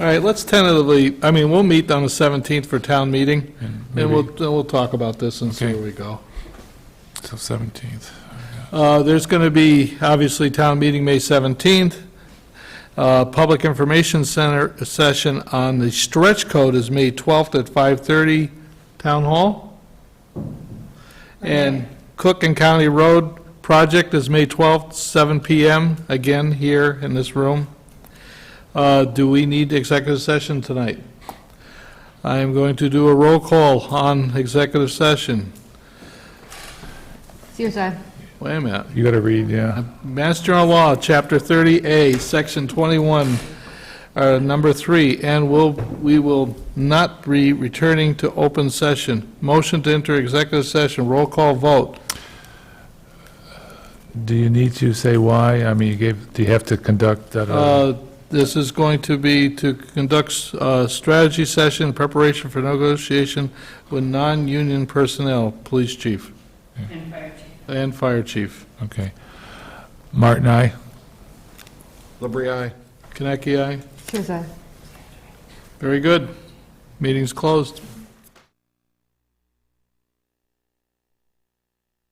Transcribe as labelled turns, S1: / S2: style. S1: All right, let's tentatively, I mean, we'll meet on the 17th for town meeting, and we'll, then we'll talk about this and see
S2: Okay.
S1: where we go.
S2: So 17th.
S1: Uh, There's going to be, obviously, town meeting May 17th. Uh, Public Information Center session on the stretch code is May 12th at 5:30, Town Hall. And Cook and County Road Project is May 12th, 7 PM, again, here in this room. Uh, Do we need executive session tonight? I am going to do a roll call on executive session.
S3: CSI.
S1: Wait a minute.
S2: You got to read, yeah.
S1: Mass General Law, Chapter 30A, Section 21, uh, Number 3, and will, we will not be returning to open session. Motion to enter executive session, roll call vote.
S2: Do you need to say why? I mean, you gave, do you have to conduct that? uh,
S1: Uh, This is going to be to conduct uh strategy session in preparation for negotiation with non-union personnel, Police Chief. And Fire Chief. And Fire Chief.
S2: Okay. Martin, aye?
S4: Labrie, aye.
S1: Kaneki, aye?
S3: CSI.
S1: Very good. Meeting's closed.